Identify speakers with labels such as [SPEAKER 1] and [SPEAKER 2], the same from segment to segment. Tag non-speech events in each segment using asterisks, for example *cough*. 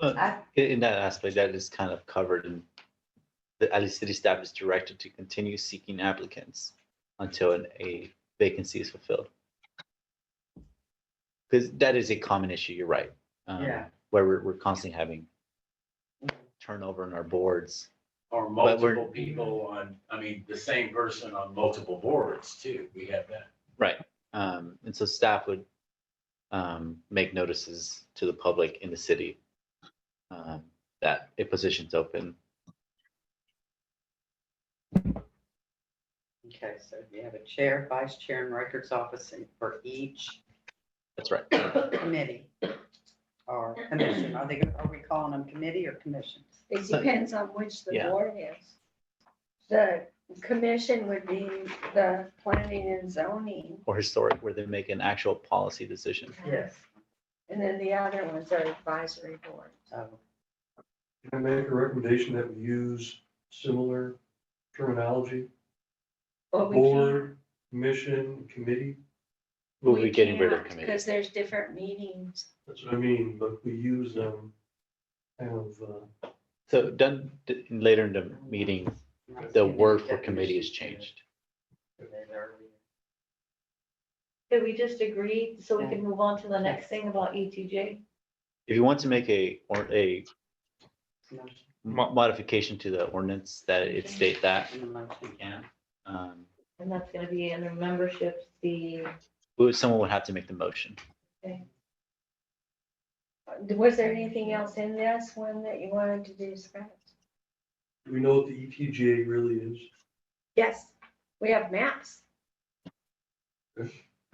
[SPEAKER 1] Uh,
[SPEAKER 2] I-
[SPEAKER 1] In in that aspect, that is kind of covered in, the at least city staff is directed to continue seeking applicants until an- a vacancy is fulfilled. Because that is a common issue, you're right. um,
[SPEAKER 2] Yeah.
[SPEAKER 1] Where we're, we're constantly having turnover in our boards.
[SPEAKER 3] Or
[SPEAKER 1] But we're-
[SPEAKER 3] multiple people on, I mean, the same person on multiple boards too. We have that.
[SPEAKER 1] Right. Um, and so staff would um, make notices to the public in the city um, that a position's open.
[SPEAKER 2] Okay, so you have a chair, vice chair, and records office in- for each
[SPEAKER 1] That's right.
[SPEAKER 2] committee or commission. Are they, are we calling them committee or commissions?
[SPEAKER 4] It
[SPEAKER 1] So-
[SPEAKER 4] depends on which the
[SPEAKER 1] Yeah.
[SPEAKER 4] board is. The commission would be the planning and zoning,
[SPEAKER 1] Or historic, where they make an actual policy decision.
[SPEAKER 2] Yes.
[SPEAKER 4] and then the other ones are advisory board.
[SPEAKER 2] So,
[SPEAKER 5] Can I make a recommendation that we use similar terminology?
[SPEAKER 4] But we can't-
[SPEAKER 5] Board, commission, committee,
[SPEAKER 1] We'll be getting rid of
[SPEAKER 4] can't,
[SPEAKER 1] committee.
[SPEAKER 4] Because there's different meetings.
[SPEAKER 5] that's what I mean, but we use them kind of, uh,
[SPEAKER 1] So done d- later in the meeting, the word for committee is changed.
[SPEAKER 6] Did we just agree so we
[SPEAKER 2] Yeah.
[SPEAKER 6] can move on to the next thing about E ETJ?
[SPEAKER 1] If you want to make a, or a
[SPEAKER 2] Motion,
[SPEAKER 1] mo- modification to the ordinance that it state that,
[SPEAKER 2] in the motion.
[SPEAKER 1] yeah. Um,
[SPEAKER 6] And that's gonna be under memberships, the,
[SPEAKER 1] who- someone would have to make the motion.
[SPEAKER 4] Was there anything else in this one that you wanted to discuss?
[SPEAKER 5] do we know what the E ETGA really is?
[SPEAKER 4] Yes, we have *laughs* maps.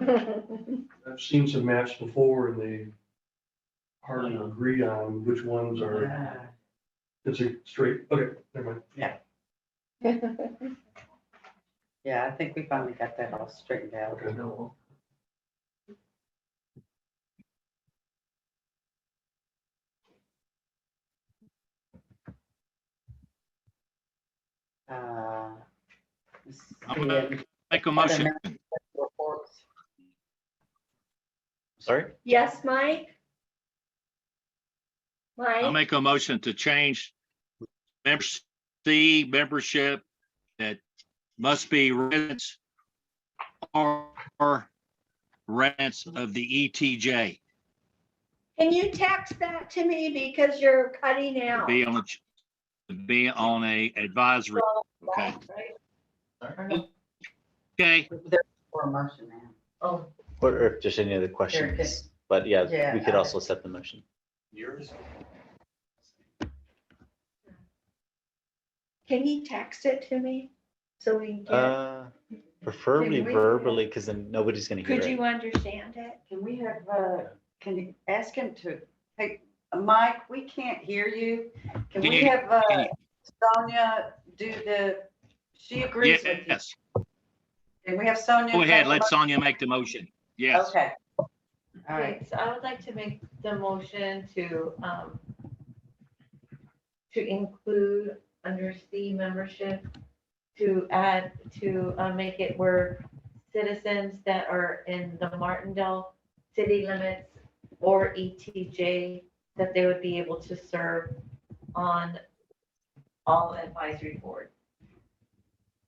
[SPEAKER 5] I've seen some maps before and they hardly agree on which ones are,
[SPEAKER 2] Ah,
[SPEAKER 5] it's a straight, okay, never mind.
[SPEAKER 2] Yeah, I think we finally got that all straightened out.
[SPEAKER 5] Okay.
[SPEAKER 2] Uh, let's
[SPEAKER 7] I'm
[SPEAKER 2] see,
[SPEAKER 7] gonna
[SPEAKER 2] and
[SPEAKER 7] Make a
[SPEAKER 2] other
[SPEAKER 7] motion,
[SPEAKER 2] members' reports.
[SPEAKER 1] Sorry?
[SPEAKER 4] Yes, Mike?
[SPEAKER 7] I'll
[SPEAKER 4] Mike,
[SPEAKER 7] make a motion to change members, C membership that must be residents or or residents of the E ETJ,
[SPEAKER 4] can you text that to me because you're cutting out?
[SPEAKER 7] be on, be on a advisory, okay? Okay,
[SPEAKER 2] There's a motion now.
[SPEAKER 6] oh,
[SPEAKER 1] Or or if there's any other questions, but yeah, we
[SPEAKER 2] Yeah,
[SPEAKER 1] could
[SPEAKER 2] I-
[SPEAKER 1] also set the motion.
[SPEAKER 3] Yours?
[SPEAKER 4] Can you text it to me so we can get,
[SPEAKER 1] Uh, preferably
[SPEAKER 4] Can we-
[SPEAKER 1] verbally, because then nobody's gonna hear
[SPEAKER 4] could
[SPEAKER 1] it.
[SPEAKER 4] you understand it?
[SPEAKER 2] Can we have, uh, can you ask him to, hey, Mike, we can't hear you. Can we
[SPEAKER 7] Can you-
[SPEAKER 2] have uh,
[SPEAKER 7] can you-
[SPEAKER 2] Sonia do the, she agrees with you.
[SPEAKER 7] yes,
[SPEAKER 2] Can we have Sonia?
[SPEAKER 7] go ahead,
[SPEAKER 2] take
[SPEAKER 7] let
[SPEAKER 2] the-
[SPEAKER 7] Sonia make the motion, yes.
[SPEAKER 2] Okay. All right,
[SPEAKER 6] okay, so I would like to make the motion to, um, to include under C membership, to add, to, uh, make it where citizens that are in the Martindale city limits or ETJ, that they would be able to serve on all advisory boards.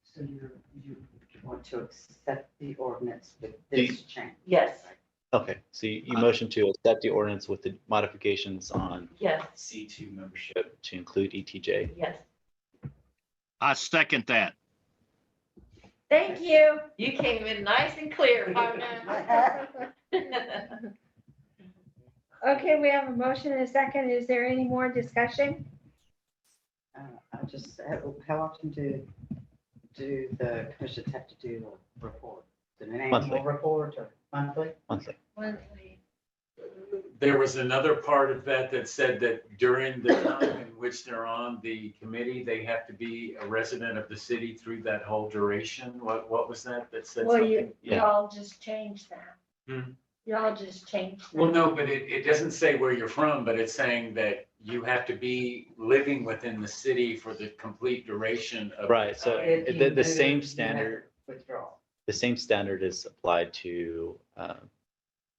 [SPEAKER 2] so you, you want to accept the ordinance with
[SPEAKER 1] Do
[SPEAKER 2] this change?
[SPEAKER 6] Yes,
[SPEAKER 1] Okay, so you you
[SPEAKER 7] Uh,
[SPEAKER 1] motion to accept the ordinance with the modifications on
[SPEAKER 6] yes,
[SPEAKER 3] C two membership.
[SPEAKER 1] membership to include E ETJ.
[SPEAKER 6] yes.
[SPEAKER 7] I second that.
[SPEAKER 3] *laughs*
[SPEAKER 4] Thank you.
[SPEAKER 6] You came in nice and clear,
[SPEAKER 4] *laughs*
[SPEAKER 6] *laughs* partner.
[SPEAKER 4] Okay, we have a motion and a second. Is there any more discussion?
[SPEAKER 2] Uh, I just, how- how often do, do the commissions have to do a report? An
[SPEAKER 1] Monthly.
[SPEAKER 2] annual report or monthly?
[SPEAKER 1] Monthly.
[SPEAKER 3] There was another part of that that said that during the time in which they're on the committee, they have to be a resident of the city through that whole duration. What, what was that that said
[SPEAKER 4] Well, you,
[SPEAKER 3] something?
[SPEAKER 1] yeah.
[SPEAKER 4] y'all just change that.
[SPEAKER 3] Hmm.
[SPEAKER 4] Y'all just change. that.
[SPEAKER 3] Well, no, but it, it doesn't say where you're from, but it's saying that you have to be living within the city for the complete duration of. the
[SPEAKER 1] Right, so
[SPEAKER 3] time.
[SPEAKER 2] If
[SPEAKER 1] the-
[SPEAKER 2] you
[SPEAKER 1] the
[SPEAKER 2] move,
[SPEAKER 1] same
[SPEAKER 2] you have
[SPEAKER 1] standard-
[SPEAKER 2] Withdrawal,
[SPEAKER 1] The same standard is applied to uh,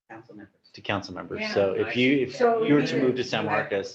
[SPEAKER 2] council members.
[SPEAKER 3] to council members.
[SPEAKER 1] Yeah.
[SPEAKER 3] So if you, if
[SPEAKER 1] So
[SPEAKER 3] you were
[SPEAKER 1] we
[SPEAKER 3] to
[SPEAKER 1] should-
[SPEAKER 3] move to San Marcos,